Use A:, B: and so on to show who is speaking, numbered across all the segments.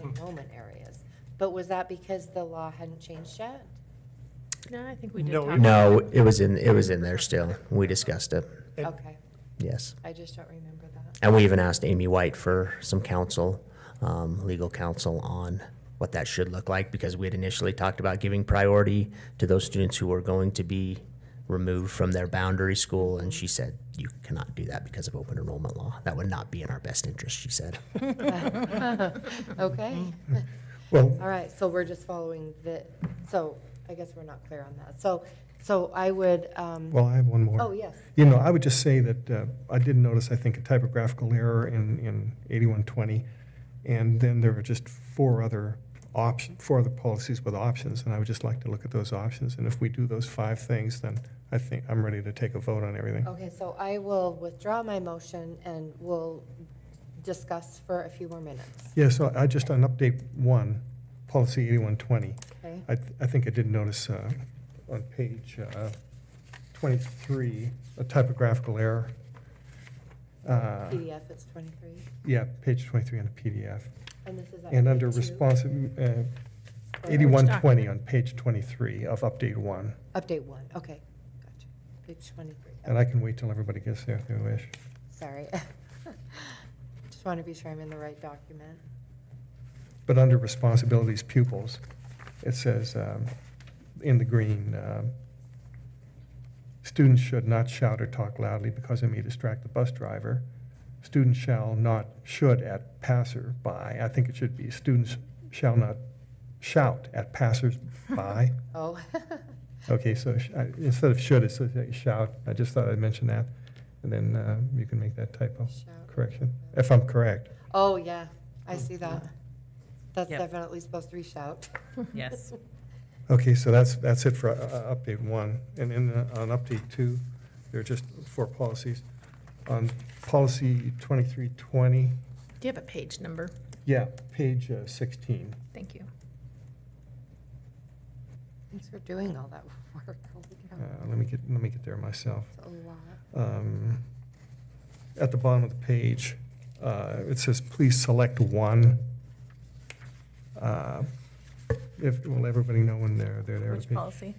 A: Hmm.
B: enrollment areas. But was that because the law hadn't changed yet?
C: No, I think we did
A: No,
C: talk
A: we-
C: about
D: No, it was in, it was in there still. We discussed it,
A: It-
B: Okay,
D: yes.
B: I just don't remember that.
D: And we even asked Amy White for some counsel, um, legal counsel on what that should look like because we had initially talked about giving priority to those students who were going to be removed from their boundary school. And she said, you cannot do that because of open enrollment law. That would not be in our best interest, she said.
B: Okay,
A: Well,
B: all right, so we're just following the, so I guess we're not clear on that. So, so I would, um,
A: well, I have one
B: oh,
A: more.
B: yes,
A: You know, I would just say that uh, I did notice, I think, a typographical error in, in 8120. And then there were just four other options, four other policies with options. And I would just like to look at those options. And if we do those five things, then I think I'm ready to take a vote on everything.
B: okay, so I will withdraw my motion and we'll discuss for a few more minutes,
A: Yeah, so I just, on update one, policy 8120.
B: okay?
A: I, th- I think I did notice uh, on page uh, 23, a typographical error. Uh,
B: PDF, it's 23,
A: Yeah, page 23 on the PDF.
B: and this is. at
A: And under
B: page two,
A: responsive, uh,
B: or-
A: 8120 on page 23 of update one.
B: Update one, okay, gotcha. Page 23.
A: And I can wait till everybody gets there if they wish.
B: Sorry. Just want to be sure I'm in the right document.
A: But under responsibilities pupils, it says um, in the green, um, students should not shout or talk loudly because it may distract the bus driver. Students shall not, should at passerby. I think it should be students shall not shout at passersby.
B: Oh,
A: Okay, so sh- I- instead of should, it says shout. I just thought I'd mention that. And then uh, you can make that typo
B: shout.
A: correction, if I'm correct.
B: Oh, yeah, I see that. That's
E: Yep.
B: definitely supposed to be shout.
E: Yes.
A: Okay, so that's, that's it for uh, uh, update one. And then uh, on update two, there are just four policies. On policy 2320,
C: Do you have a page number?
A: yeah, page uh, 16.
C: Thank you.
B: Thanks for doing all that work. Holy
A: Uh,
B: cow,
A: Let me get, let me get there myself.
B: It's a lot.
A: Um, At the bottom of the page, uh, it says, please select one. Uh, If, will everybody know when they're, they're there?
E: Which policy?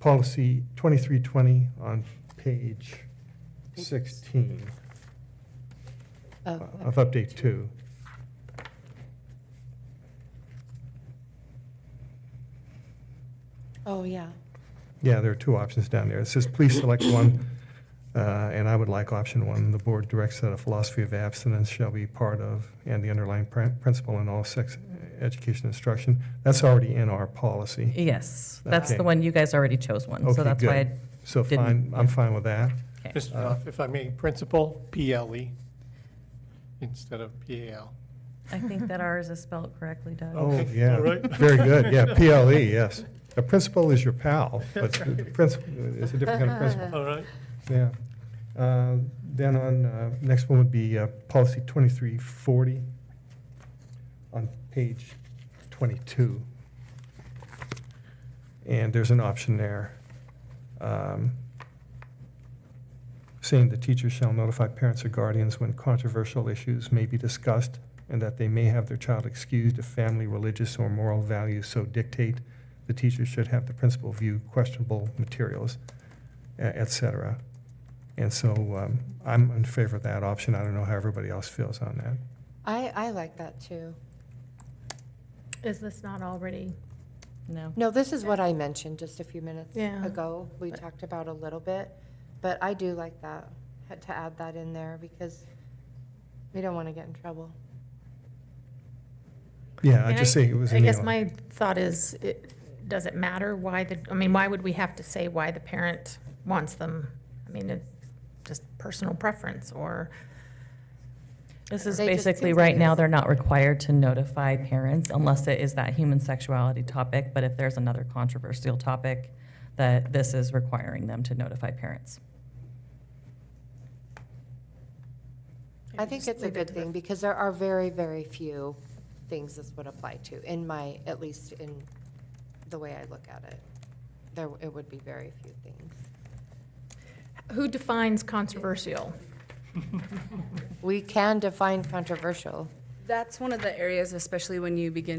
A: Policy 2320 on page
B: Page-
A: 16.
B: Oh,
A: Uh, of update two.
B: Oh, yeah.
A: Yeah, there are two options down there. It says, please select one, uh, and I would like option one. The board directs that a philosophy of abstinence shall be part of and the underlying prin- principle in all sex education instruction. That's already in our policy.
E: Yes, that's
A: Okay.
E: the one, you guys already chose one,
A: Okay,
E: so that's why,
A: good. So
E: didn't-
A: fine, I'm fine with that.
E: I- okay.
F: Mr. Knopf, if I may, principal, PLE, instead of PAL.
E: I think that ours is spelled correctly, Doug.
A: Oh,
F: Okay,
A: yeah,
F: all right.
A: very good. Yeah, PLE, yes. The principal is your pal, but the principal, it's a different kind of principal.
F: All right.
A: Yeah. Uh, Then on, uh, next one would be uh, policy 2340 on page 22. And there's an option there. um, Saying the teacher shall notify parents or guardians when controversial issues may be discussed and that they may have their child excused if family, religious, or moral values so dictate. The teacher should have the principal view questionable materials e- et cetera. And so um, I'm in favor of that option. I don't know how everybody else feels on that.
B: I, I like that too.
C: Is this not already?
E: No.
B: No, this is what I mentioned just a few minutes
C: Yeah.
B: ago. We talked about a little bit, but I do like that, had to add that in there because we don't want to get in trouble.
A: Yeah, I
C: And
A: just say it was
C: I
A: in the.
C: guess my thought is, it, does it matter why the, I mean, why would we have to say why the parent wants them? I mean, it's just personal preference or,
E: This is
B: They just
E: basically,
B: seems
E: right
B: like
E: now,
B: it's-
E: they're not required to notify parents unless it is that human sexuality topic, but if there's another controversial topic, that this is requiring them to notify parents.
B: I think it's a good thing, because there are very, very few things this would apply to, in my, at least in the way I look at it. There, it would be very few things.
C: who defines controversial?
B: We can define controversial.
G: that's one of the areas, especially when you begin